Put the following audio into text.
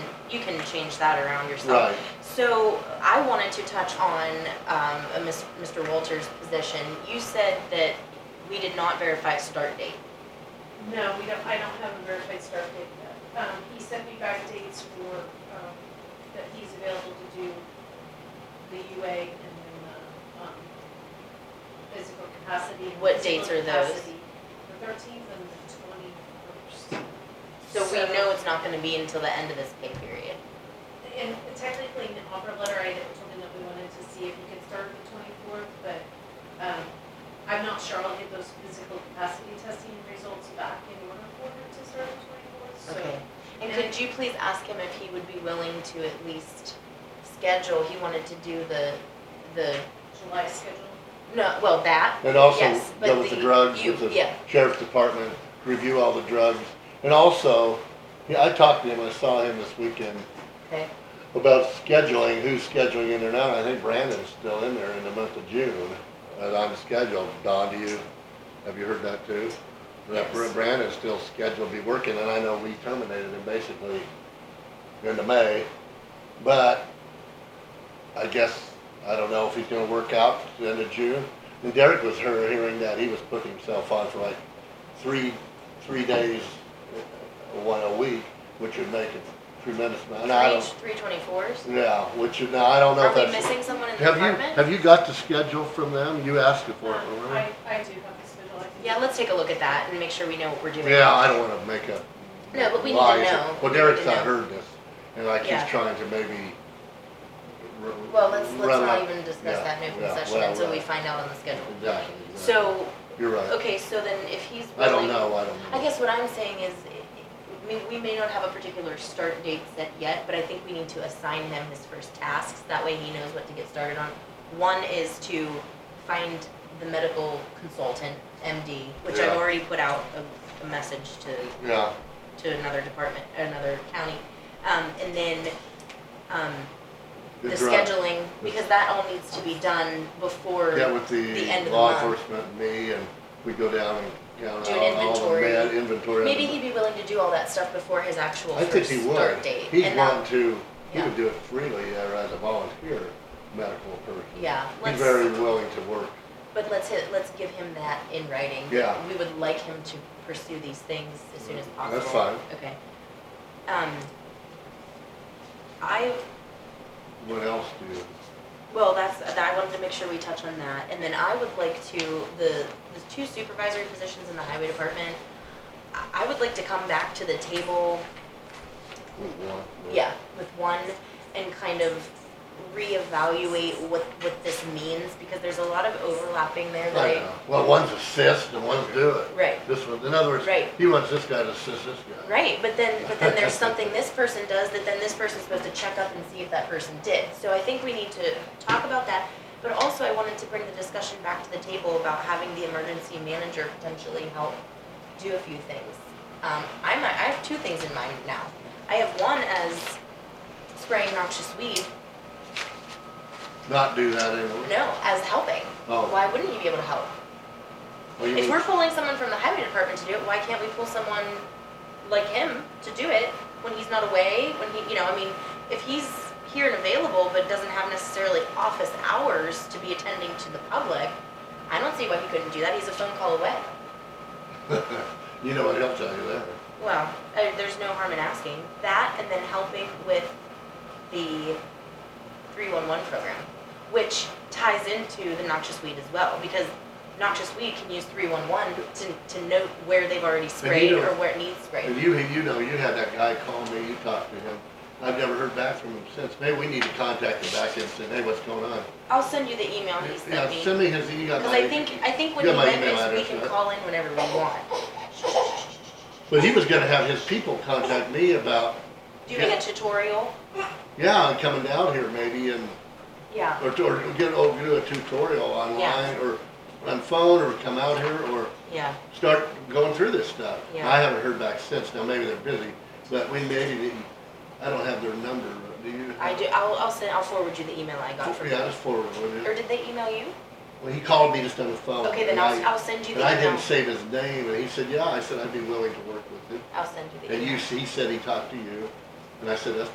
you can change that around yourself. Right. So I wanted to touch on um, a Miss, Mr. Walter's position. You said that we did not verify a start date. No, we don't, I don't have a verified start date yet. Um, he sent me back dates for, um, that he's available to do the UA and then the, um, physical capacity. and What physical dates are those? capacity, The thirteenth and the twenty-first. So we know it's not gonna be until the end of this pay period. And technically, in the offer letter, I had told him that we wanted to see if he could start the twenty-fourth, but, um, I'm not sure I'll get those physical capacity testing results back in order for him to start the twenty-fourth, so. Okay. And could you please ask him if he would be willing to at least schedule, he wanted to do the, the, July schedule. no, well, that, And also yes, but deal with the drugs, you- with the yeah. sheriff's department, review all the drugs. And also, yeah, I talked to him, I saw him this weekend Okay, about scheduling, who's scheduling in there now. And I think Brandon's still in there in the month of June. And I'm scheduled. Don, do you, have you heard that too? That Yes. Brandon's still scheduled to be working and I know we terminated him basically into May. But I guess, I don't know if he's gonna work out to the end of June. And Derek was her hearing that, he was putting himself on for like three, three days, uh, one a week, which would make a tremendous amount. And I three, don't, three twenty-fours? yeah, which, is- now I don't know Are if we that's. missing someone in the Have you, department? have you got the schedule from them? You asked it for it, Um, remember? I, I do have the schedule, I can. Yeah, let's take a look at that and make sure we know what we're doing. Yeah, I don't wanna make up. No, but we need to lies. know. Well, We need to Derek's not know. heard this, and like he's Yeah. trying to maybe. r- Well, let's, let's run not up- even discuss yeah, that in open yeah, session well, until we right. find out on the schedule. Exactly. exactly. So, You're right. okay, so then if he's I willing. don't know, I don't know. I guess what I'm saying is, we, we may not have a particular start date set yet, but I think we need to assign him his first tasks, that way he knows what to get started on. One is to find the medical consultant, MD, which I've Yeah. already put out a, a message to Yeah, to another department, another county. Um, and then, um, the The drug. scheduling, because that all needs to be done before. yeah, with the end the of the law month. enforcement, and me, and we go down and count Do an all, all the inventory. med inventory. Maybe he'd be willing to do all that stuff before his actual I think first he start would. date. He'd and that- want to, he yeah. would do it freely uh, as a volunteer medical person. Yeah, He's let's, very willing to work. but let's hit, let's give him that in writing. Yeah. We would like him to pursue these things as soon as Mm, possible. that's fine. Okay. Um, I, What else do you? Well, that's, that- I wanted to make sure we touch on that, and then I would like to, the, the two supervisory positions in the highway department, I- I would like to come back to the table, would want? yeah, with one, and kind of reevaluate what, what this means, because there's a lot of overlapping there that I know. I. Well, one's assist and one's do it. Right, This one, in other words, Right. he wants this guy to assist this guy. right, but then, but then there's something this person does that then this person's supposed to check up and see if that person did, so I think we need to talk about that. But also, I wanted to bring the discussion back to the table about having the emergency manager potentially help do a few things. Um, I'm, I have two things in mind now. I have one as spraying noxious weed, Not do that anymore. no, as helping. Oh. Why wouldn't you be able to help? Well, you If mean- we're pulling someone from the highway department to do it, why can't we pull someone like him to do it when he's not away? When he, you know, I mean, if he's here and available but doesn't have necessarily office hours to be attending to the public, I don't see why he couldn't do that. He's a phone call away. You know what he'll tell you there. Well, uh, there's no harm in asking that, and then helping with the 311 program, which ties into the noxious weed as well, because noxious weed can use 311 to, to note where they've already sprayed or don't- where it needs sprayed. And you, you know, you had that guy call me, you talked to him. I've never heard back from him since. Maybe we need to contact him back and say, hey, what's going on? I'll send you the email he Yeah, sent me. send me his, you got Because my. I think, I think when You he got my went email this, we address, can right? call in whenever we want. But he was gonna have his people contact me about, Doing Yeah. a tutorial, yeah, I'm coming down here maybe and yeah. Or, or get, or do a tutorial online, Yeah. or on phone, or come out here, or Yeah, start going through this stuff. Yeah. I haven't heard back since, now maybe they're busy, but we maybe, didn't- I don't have their number, do you? I do, I'll, I'll send, I'll forward you the email I got from Yeah, him. just forward, would Or you? did they email you? Well, he called me just on the phone. Okay, then and I'll, Oh, I- I'll send you the And email. I didn't save his name, and he said, yeah, I said I'd be willing to work with him, I'll send you the email. and you, he said he talked to you, and I said, that's